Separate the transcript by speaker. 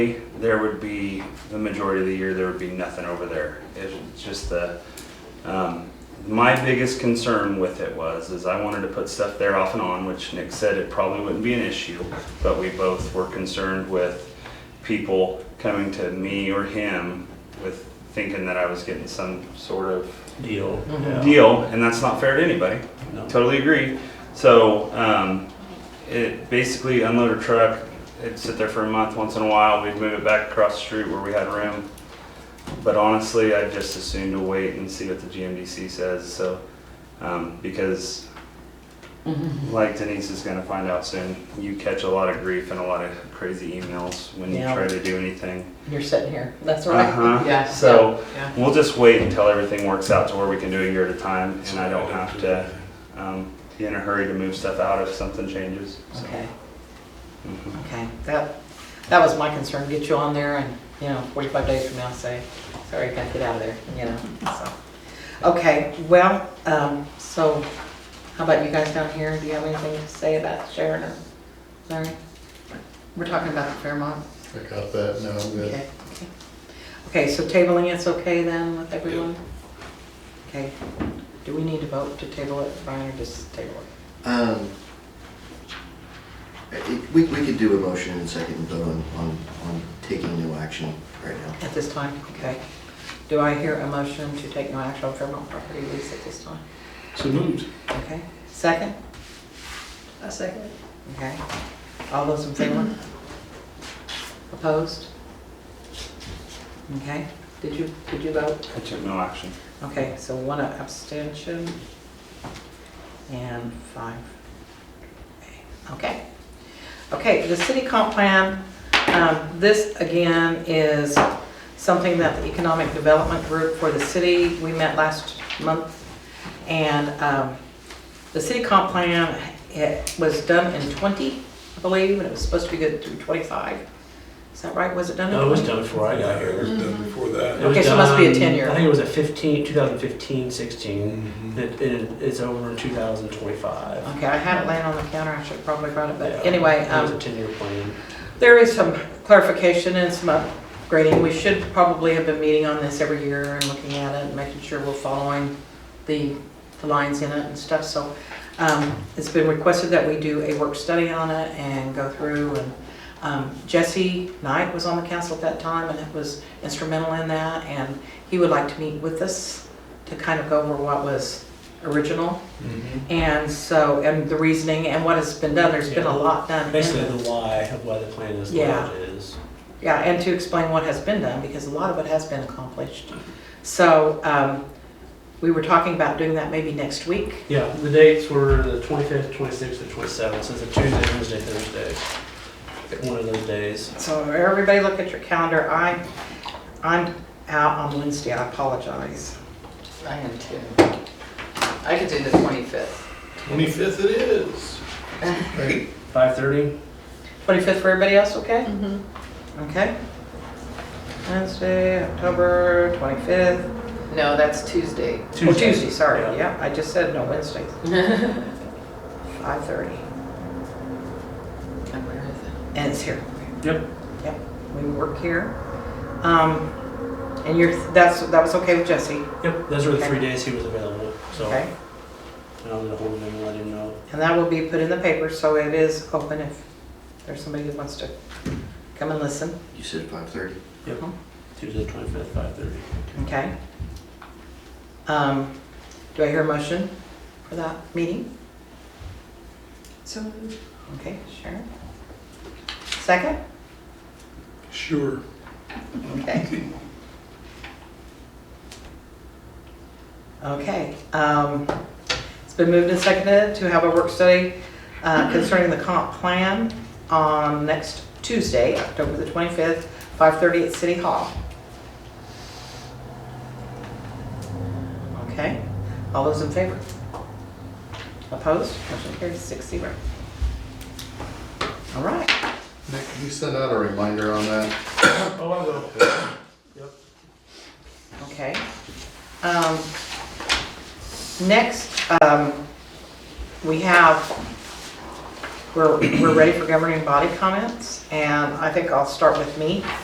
Speaker 1: there would be, the majority of the year, there would be nothing over there. It's just the, um, my biggest concern with it was, is I wanted to put stuff there off and on, which Nick said it probably wouldn't be an issue, but we both were concerned with people coming to me or him with thinking that I was getting some sort of
Speaker 2: deal.
Speaker 3: Mm-hmm.
Speaker 1: deal, and that's not fair to anybody.
Speaker 2: No.
Speaker 1: Totally agree. So, um, it basically unload a truck, it'd sit there for a month, once in a while, we'd move it back across the street where we had room. But honestly, I just assumed to wait and see what the GMDC says, so, um, because like Denise is gonna find out soon, you catch a lot of grief and a lot of crazy emails when you
Speaker 3: Yeah.
Speaker 1: try to do anything.
Speaker 3: You're sitting here, that's
Speaker 1: Uh-huh.
Speaker 3: right. Yeah.
Speaker 1: So-
Speaker 3: yeah,
Speaker 1: We'll just wait until everything works out to where we can do a year at a time, and I don't have to um, be in a hurry to move stuff out if something changes.
Speaker 3: yeah.
Speaker 1: so.
Speaker 3: Okay,
Speaker 1: Mhm.
Speaker 3: okay, that, that was my concern, get you on there and, you know, forty-five days from now, say, sorry, I gotta get out of there, you know, so. Okay, well, um, so, how about you guys down here, do you have anything to say about Sharon or Larry? We're talking about the Fairmont,
Speaker 4: I got that, no, I'm good.
Speaker 3: okay, okay. Okay, so tabling it's okay then with everyone? Okay, do we need to vote to table it, Brian, or just table it?
Speaker 5: Um, it- We, we could do a motion and second and vote on, on, on taking no action right now.
Speaker 3: At this time, okay. Do I hear a motion to take no action on Fairmont property lease at this time?
Speaker 2: So moved.
Speaker 3: Okay, second?
Speaker 6: A second.
Speaker 3: Okay. All those in favor? Opposed? Okay, did you, did you vote?
Speaker 1: I took no action.
Speaker 3: Okay, so one abstention and five. Okay. Okay, the city comp plan, um, this again is something that the Economic Development Group for the city, we met last month. And um, the city comp plan, it was done in 20, I believe, and it was supposed to be good through 25. Is that right? Was it done in 20?
Speaker 2: No, it was done before I got here.
Speaker 6: It was done before
Speaker 2: It
Speaker 6: that.
Speaker 2: was
Speaker 3: Okay, so it must be a
Speaker 2: done-
Speaker 3: 10-year.
Speaker 2: I think it was a 15, 2015, 16.
Speaker 6: Mhm.
Speaker 2: It, it- it's over in 2025.
Speaker 3: Okay, I had it laying on the counter, I should have probably brought it,
Speaker 2: Yeah.
Speaker 3: but anyway.
Speaker 2: It was
Speaker 3: um,
Speaker 2: a 10-year plan.
Speaker 3: There is some clarification and some upgrading. We should probably have been meeting on this every year and looking at it and making sure we're following the, the lines in it and stuff. So um, it's been requested that we do a work study on it and go through. And um, Jesse Knight was on the council at that time and it was instrumental in that. And he would like to meet with us to kind of go over what was original.
Speaker 6: Mm-hmm.
Speaker 3: And so, and the reasoning and what has been done. There's been a lot done. in
Speaker 2: Basically,
Speaker 3: it.
Speaker 2: the why of why the plan is the way
Speaker 3: Yeah.
Speaker 2: it is.
Speaker 3: Yeah, and to explain what has been done, because a lot of it has been accomplished. So um, we were talking about doing that maybe next week.
Speaker 2: Yeah, the dates were the 25th, 26th, and 27th. So it's a Tuesday, Wednesday, Thursday. One of those days.
Speaker 3: So everybody look at your calendar. I, I'm out on Wednesday, I apologize.
Speaker 7: I am too. I could do the twenty-fifth.
Speaker 6: Twenty-fifth it is.
Speaker 2: 5:30.
Speaker 3: 25th for everybody else, okay?
Speaker 7: Mm-hmm.
Speaker 3: Okay. Wednesday, October 25th,
Speaker 7: No, that's Tuesday.
Speaker 3: or Oh, Tuesday, sorry,
Speaker 2: Yeah.
Speaker 3: yeah, I just said no, Wednesday, 5:30,
Speaker 7: And where is it?
Speaker 3: and it's here.
Speaker 2: Yep.
Speaker 3: Yep, we work here. Um, And you're, that's, that was okay with Jesse?
Speaker 2: Yep. Those were the
Speaker 3: Okay.
Speaker 2: three days he was available. So
Speaker 3: Okay,
Speaker 2: and I'll get a hold of him and let him know.
Speaker 3: and that will be put in the paper, so it is open if there's somebody that wants to come and listen,
Speaker 5: You said five thirty?
Speaker 2: Tuesday, 25th, 5:30.
Speaker 3: okay? Um, Do I hear a motion for that meeting?
Speaker 6: So.
Speaker 3: Okay, Sharon? Second?
Speaker 6: Sure.
Speaker 3: Okay. Okay, um, it's been moved and seconded to have a work study uh, concerning the comp plan on next Tuesday, October the 25th, 5:30 at City Hall. Okay, all those in favor? Opposed? Motion carries six zero. All right.
Speaker 4: Nick, can you send out a reminder on that?
Speaker 2: Oh, I will.
Speaker 3: Okay. Um, Next, um, we have We're, we're ready for governing body comments, and I think I'll start with me.